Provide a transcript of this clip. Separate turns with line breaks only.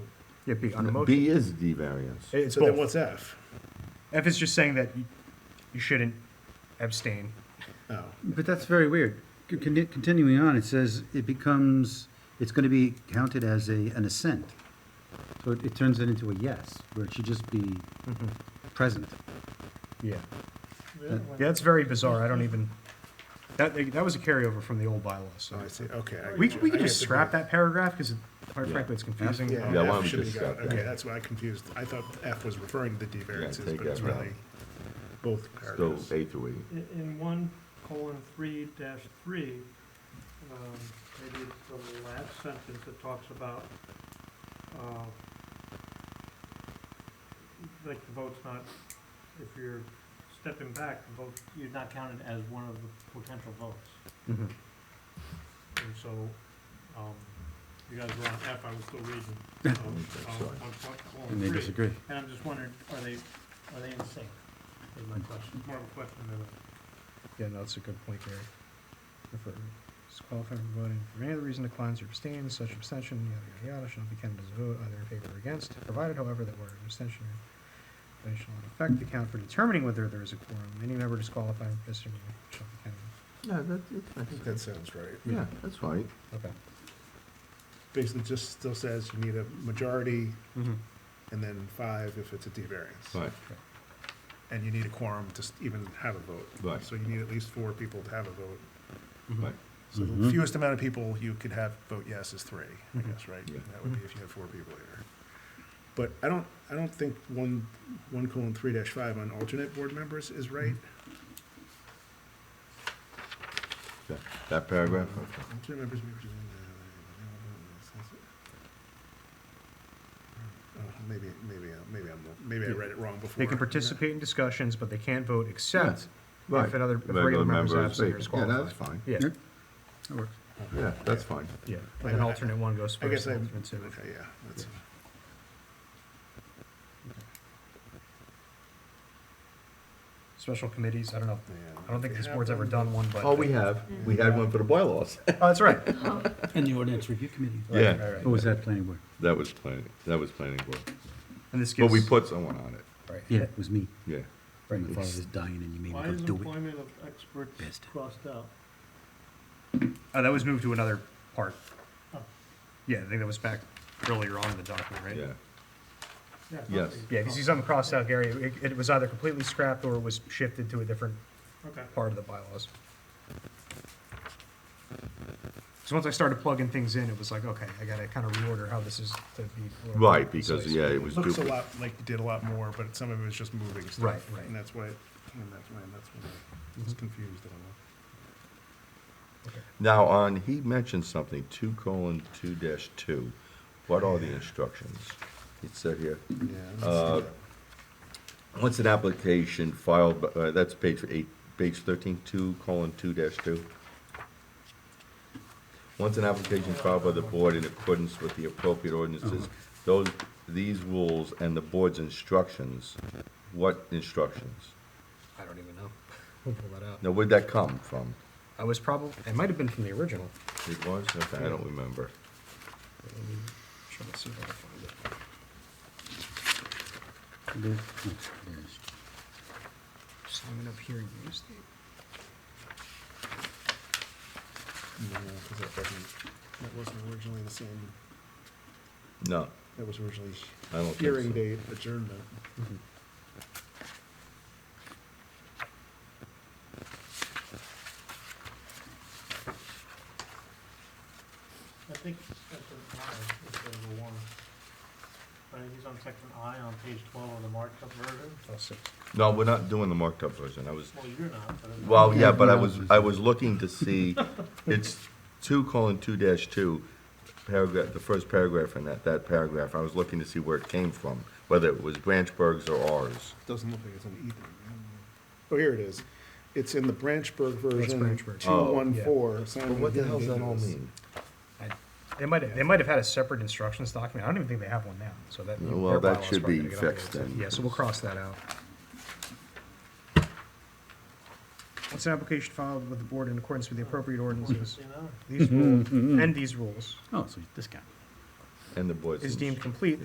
It'd be on a motion.
B is D variance.
It's
So then
both.
what's F?
F is just saying that you- you shouldn't abstain.
Oh,
But that's very weird. C- con- Continuing on, it says it becomes, it's going to be counted as a, an assent. So it, it turns it into a yes, where it should just be present.
Yeah. Yeah, that's very bizarre. I don't even, that, that was a carryover from the old bylaw,
oh,
so.
I see, okay. I
We could,
get it.
we
I
could
get
just
the
scrap
point.
that paragraph because quite frankly, it's confusing.
Yeah.
Yeah, why
F
don't we
should be
just
got-
scrap that?
Okay, that's why I confused, I thought F was referring to the D variances,
take
but it's
F out.
really both
So
paragraphs.
A through E.
In, in one colon three dash three, um, maybe it's the last sentence that talks about, uh, like the vote's not, if you're stepping back, the vote, you're not counted as one of the potential votes.
Mhm.
And so, um, you guys were on F, I was still reading, um, um,
sorry.
on col- colon
And they
three.
disagree.
And I'm just wondering, are they, are they in sync? Is my question, more of a question than a.
Yeah, no, that's a good point, Gary. If it disqualified from voting for any other reason declines or abstains, such abstention, yada, yada, yada, shall be counted as a vote either in favor or against, provided however that where an abstention or vote shall in effect be counted for determining whether there is a quorum. Any member disqualified from participating shall be counted.
Yeah, that,
I think that sounds right.
yeah, that's right.
Okay.
Basically, just still says you need a majority
Mm-hmm.
and then five if it's a D variance.
Right,
And you need a quorum to s- even have a vote.
Right.
So you need at least four people to have a vote.
right.
So the
Mhm.
fewest amount of people you could have vote yes is three, I
Mhm.
guess, right?
Yeah.
That would be if you had four people here. But I don't, I don't think one, one colon three dash five on alternate board members is right.
That- That paragraph, okay.
Alternate members. may uh, present- Oh, Maybe, maybe, I- maybe I'm, maybe I read it wrong before.
They can participate in discussions, but they can't vote except
right.
if another, if
Regular
regular member is
member is
absent or
vacant. Yeah,
disqualified.
that's fine.
Yeah,
Yep. That works.
Yeah, that's fine.
yeah.
Like,
An
I-
alternate one goes
I
first,
guess I, okay,
alternate two.
yeah, that's,
Special committees, I don't know.
yeah.
I don't think
They
this
have
board's ever
one.
done one, but.
All Oh, we have, we had one for the bylaws.
Oh, that's right.
And the ordinance review committee.
Right,
Yeah.
right, right.
Or was that planning board?
That was planning, that was planning board.
And this gives.
But we put someone on it,
Right.
Yeah, it was me.
yeah.
My father was dying and you made
Why
me
is
go do it.
employment of experts
Best.
crossed out?
Uh, that was moved to another part.
Oh.
Yeah, I think that was back earlier on in the document, right?
Yeah,
Yeah,
Yes.
okay.
Yeah, if you see something crossed out, Gary, it, it was either completely scrapped or it was shifted to a different
Okay.
part of the bylaws. So once I started plugging things in, it was like, okay, I gotta kind of reorder how this is to be. a little more
right, because,
concise.
yeah, it was
Looks a
duplicate.
lot like you did a lot more, but some of it was just moving stuff.
Right, right.
And that's why, it- and that's why, and that's why I
Mm-hmm.
was confused. I don't know.
Now, on, he mentioned something, two colon two dash two. What are the instructions? It said here, Uh,
Yeah, let's see that.
once an application filed, by- uh, that's page eight, page thirteen, two colon two dash two. Once an application filed by the board in accordance with the appropriate ordinances, those, these rules and the board's instructions, what instructions?
I don't even know. We'll pull that out.
Now, where'd that come from?
I was probably, it might have been from the original.
It was, okay, I don't remember.
Let me try to see if I can find it.
There- oh, there it is.
Just hanging up here, use the.
No, because that wasn't, that wasn't originally the same,
No,
that was originally
I don't think so.
hearing date adjournment.
I think section I is the one. Right, he's on section I on page twelve of the marked up version.
I'll see.
No, we're not doing the marked up version, I was,
Well, you're not, but. it's-
well, yeah, but I was, I was looking to see, it's two colon two dash two, paragraph, the first paragraph in that, that paragraph, I was looking to see where it came from, whether it was Branchburg's or ours.
Doesn't look like it's in either. Oh, here it is. It's in the Branchburg version,
Branchburg.
two
Oh.
one four.
But what the hell's that all mean?
They might have, they might have had a separate instructions document. I don't even think they have one now, so that.
Well,
their
that
bylaws
should
probably
be
gotta get updated.
fixed then.
Yeah, so we'll cross that out. Once an application filed with the board in accordance with the appropriate ordinances,
You know?
these rules, and these rules,
Oh, so this guy.
And the boys.
is deemed complete